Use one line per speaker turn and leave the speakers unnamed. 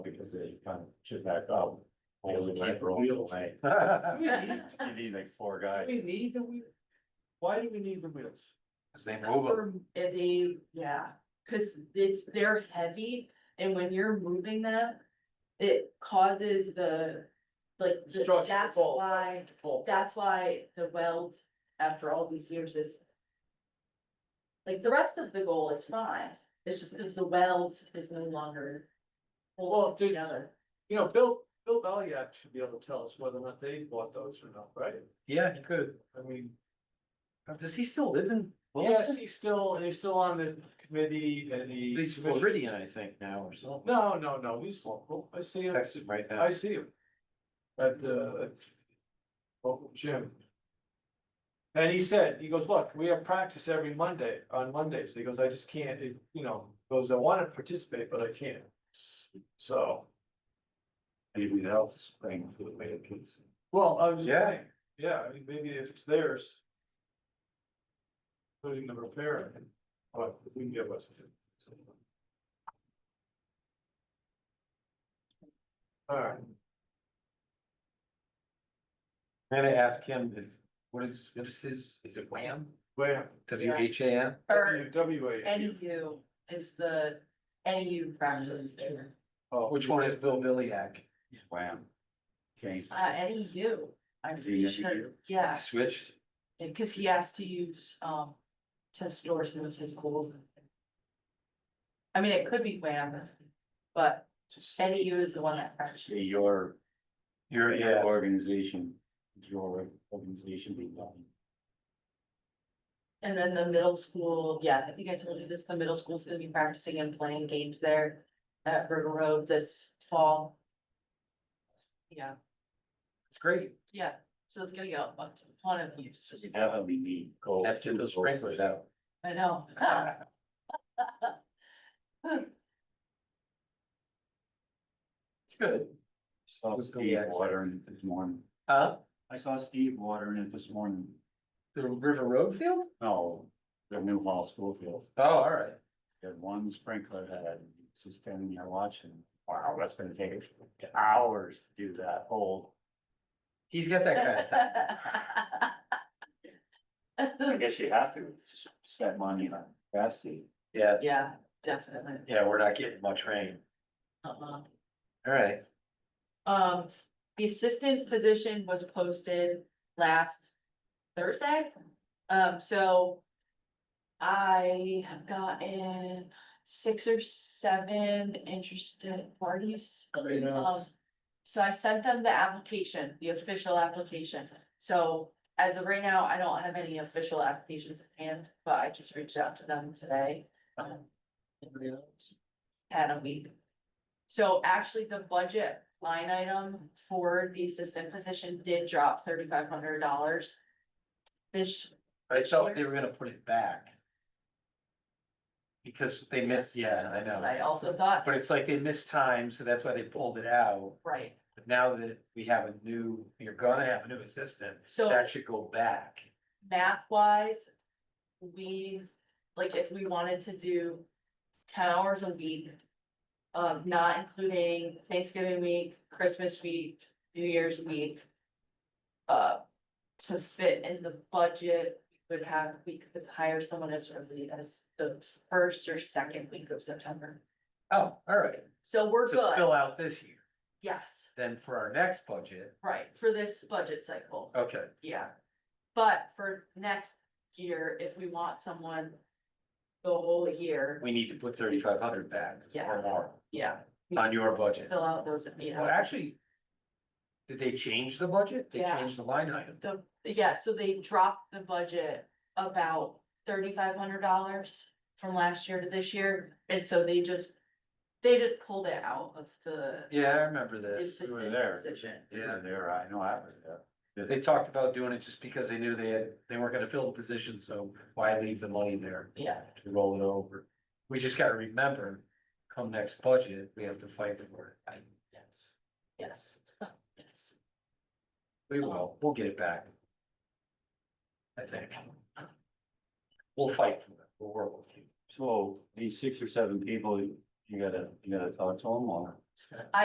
they kind of chip back up.
Yeah, we
Holes in my
can't
roll
wheel.
away.
We need-
You need like four guys.
We need the wheel. Why do we need the wheels?
Cause they move them.
For, if they, yeah, cause it's, they're heavy, and when you're moving them, it causes the, like, the-
Structure
that's
fault.
why,
Pull.
that's why the weld, after all these years is. Like, the rest of the goal is fine, it's just that the weld is no longer
Well,
holding
did-
together.
You know, Bill, Bill Valiac should be able to tell us whether or not they bought those or not, right?
Yeah, he could. Uh,
I mean,
Does he still live in?
yes, he's still, and he's still on the committee and he.
He's Floridian, I think, now or something.
No, no, no, he's local. I see him,
Texas right now.
I see him. At the local gym. And he said, he goes, look, we have practice every Monday, on Mondays. He goes, I just can't, it- you know, goes, I wanna participate, but I can't. So,
Maybe that'll spring for the way it gets.
well, I was just
Yeah.
saying, yeah, I mean, maybe if it's theirs. Putting the repair in, but we can give us. Alright.
I'm gonna ask him if, what is, what is his, is it Wham?
Where?
W H A M?
Or
WWA.
NEU is the, NEU practices there,
Oh,
Which one is Bill Billyak?
Wham. Okay.
uh, NEU, I'm
The
pretty sure,
NEU?
yeah.
Switched?
And cause he has to use, um, to store some of his gold. I mean, it could be wham, but NEU is the one that
See
practices.
your,
You're,
your
yeah,
organization, your organization being done.
And then the middle school, yeah, I think I told you this, the middle school's gonna be practicing and playing games there at River Road this fall. Yeah,
it's great.
yeah, so it's gonna get a bunch- ton of use,
That'll be neat. Go-
After those sprinklers out.
I know.
It's good.
Saw
Just go
Steve
back.
watering it this morning.
Huh?
I saw Steve watering it this morning.
The River Road field?
No, the new hall school fields.
Oh, all right.
Had one sprinkler head, it's just standing there watching. Wow, that's gonna take hours to do that whole.
He's got that kind of time.
I guess you have to just spend money on grassy.
Yeah,
Yeah, definitely.
yeah, we're not getting much rain.
Uh-uh.
All right.
Um, the assistant position was posted last Thursday. Um, so I have gotten six or seven interested parties. Um, so I sent them the application, the official application. So as of right now, I don't have any official applications at hand, but I just reached out to them today. um, Had a week. So actually, the budget line item for the assistant position did drop thirty-five hundred dollars. This,
I thought they were gonna put it back. Because they missed, yeah, I
that's what
know,
I also thought,
but it's like they missed time, so that's why they pulled it out.
right,
But now that we have a new, you're gonna have a new assistant,
so
that should go back.
math wise. We, like, if we wanted to do ten hours a week. Um, not including Thanksgiving week, Christmas week, New Year's week. Uh, to fit in the budget, we would have, we could hire someone as early as the first or second week of September.
Oh, all right,
So we're
to
good,
fill out this year,
yes,
then for our next budget,
right, for this budget cycle,
okay,
yeah. But for next year, if we want someone the whole year,
we need to put thirty-five hundred back
Yeah.
or more
yeah,
on your budget.
fill out those, you
Well,
know.
actually, did they change the budget? They
Yeah.
changed the line item.
The, yeah, so they dropped the budget about thirty-five hundred dollars from last year to this year, and so they just, they just pulled it out of the
Yeah, I remember this.
We were
assistant
there.
position.
We were There, I know, I was there.
They talked about doing it just because they knew they had, they weren't gonna fill the position, so why leave the money there
Yeah,
to roll it over? We just gotta remember, come next budget, we have to fight for it.
yes, yes, yes.
We
Um,
will, we'll get it back. I think. We'll fight for it, we'll work with you.
So these six or seven people, you gotta, you gotta talk to them or?